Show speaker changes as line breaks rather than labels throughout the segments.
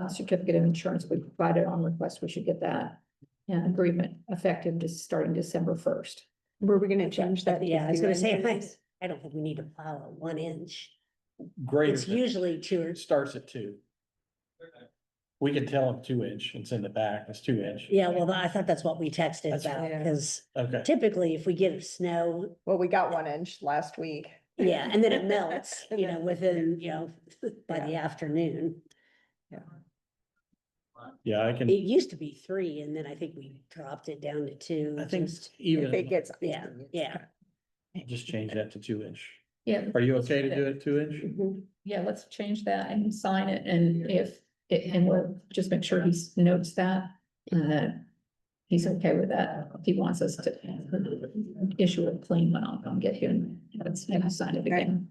uh, certificate of insurance we provided on request, we should get that uh, agreement effective just starting December first.
Were we gonna change that?
Yeah, I was gonna say, I,
nice.
I don't think we need to plow a one inch.
Greater.
It's
than-
usually two or,
It starts at two. We can tell them two inch, it's in the back, it's two inch.
yeah, well, I thought that's what we texted
That's
about,
right.
because
Okay,
typically if we get snow,
Well, we got one inch last week.
yeah, and then it melts,
And
you
then-
know, within, you know, by the afternoon.
yeah, I can,
It used to be three, and then I think we dropped it down to two.
I think
just-
If it
even,
gets.
Yeah, yeah.
just change that to two inch.
Yeah.
Are you okay to do it two inch?
Mhm.
Yeah, let's change that and sign it and if, and we'll just make sure he notes that and that he's okay with that. If he wants us to issue a clean one, I'll come get him. Let's have him sign it again.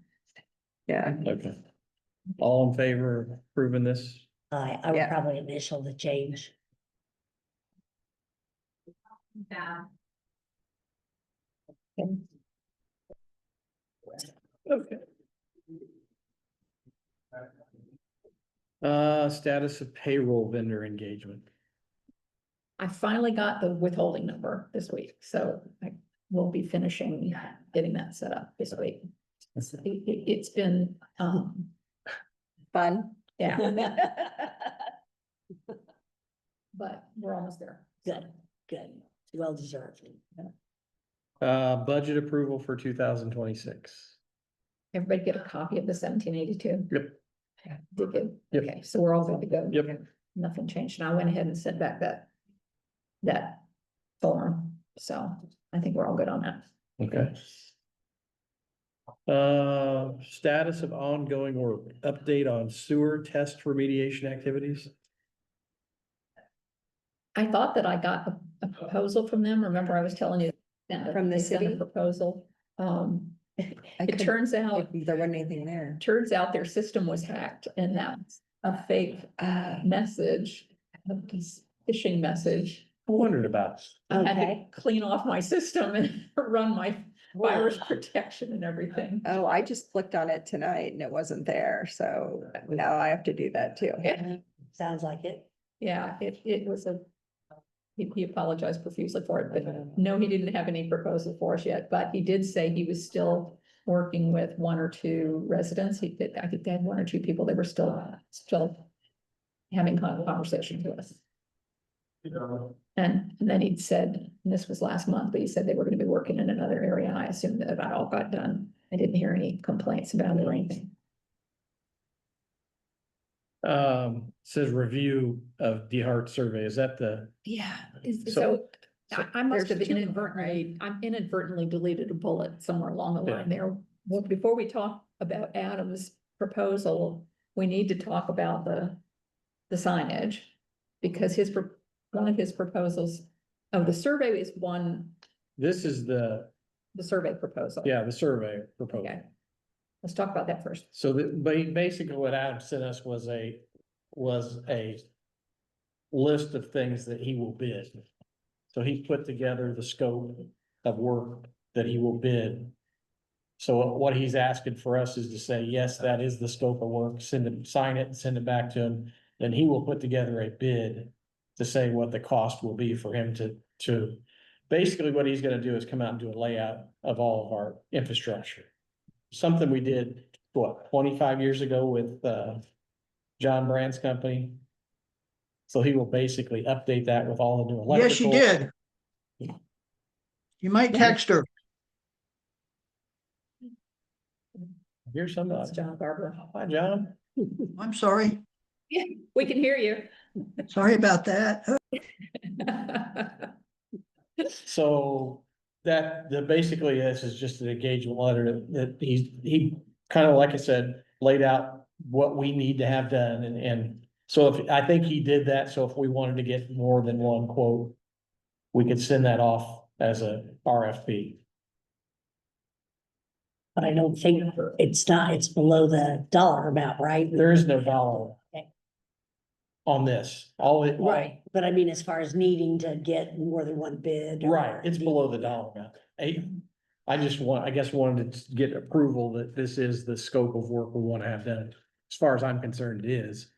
Yeah.
Okay. All in favor of approving this?
I, I would
Yeah.
probably initial the change.
Okay. Uh, status of payroll vendor engagement.
I finally got the withholding number this week, so I will be finishing getting that set up this week. It's- It, it, it's been, um,
Fun.
yeah, but we're almost there.
Good, good, well deserved.
Uh, budget approval for two thousand twenty-six.
Everybody get a copy of the seventeen eighty-two?
Yep.
Did good.
Yep.
Okay, so we're all good to go.
Yep.
Nothing changed. And I went ahead and sent back that, that form. So I think we're all good on that.
Okay. Uh, status of ongoing or update on sewer test remediation activities?
I thought that I got a- a proposal from them. Remember, I was telling you. that
From the
they sent a
city?
Proposal. Um,
I
it
couldn't-
turns
Oh.
out,
There wasn't anything there.
turns out their system was hacked and that's a fake
Uh,
message, a phishing message.
I wondered about.
I had
Okay.
to clean off my system and run my virus protection and everything.
Oh, I just clicked on it tonight and it wasn't there, so now I have to do that too.
Yeah.
Sounds like it.
Yeah, it, it was a, he, he apologized profusely for it, but no, he didn't have any proposal for us yet, but he did say he was still working with one or two residents. He did, I think they had one or two people that were still, still having con- conversations with us. And, and then he'd said, and this was last month, but he said they were gonna be working in another area, and I assumed that about all got done. I didn't hear any complaints about it or anything.
Um, says review of DeHart survey. Is that the,
Yeah, is- so
So-
I, I must
there's
have
two,
inadvertently, I'm inadvertently deleted a bullet somewhere along the
Yeah.
line there. Well, before we talk about Adam's proposal, we need to talk about the, the signage. Because his, pro- one of his proposals, oh, the survey is one,
this is the,
the survey proposal.
yeah, the survey proposal.
Okay. Let's talk about that first.
So the, ba- basically what Adam sent us was a, was a list of things that he will bid. So he put together the scope of work that he will bid. So what he's asking for us is to say, yes, that is the scope of work, send him, sign it and send it back to him. Then he will put together a bid to say what the cost will be for him to, to. Basically, what he's gonna do is come out and do a layout of all of our infrastructure. Something we did what, twenty-five years ago with, uh, John Brand's company. So he will basically update that with all the new electrical.
Yes, you did. You might text her.
Here's some,
That's John Barber.
hi, John.
I'm sorry.
We can hear you.
Sorry about that.
So that, the, basically, this is just an engagement letter that- that he's, he kind of, like I said, laid out what we need to have done and, and so if, I think he did that, so if we wanted to get more than one quote, we could send that off as a RFP.
But I don't think it's not, it's below the dollar amount, right?
There is no dollar
Okay.
on this. All it, all-
Right, but I mean, as far as needing to get more than one bid.
right,
or-
it's below the dollar amount. I, I just want, I guess wanted to get approval that this is the scope of work we want to have done. As far as I'm concerned, it is.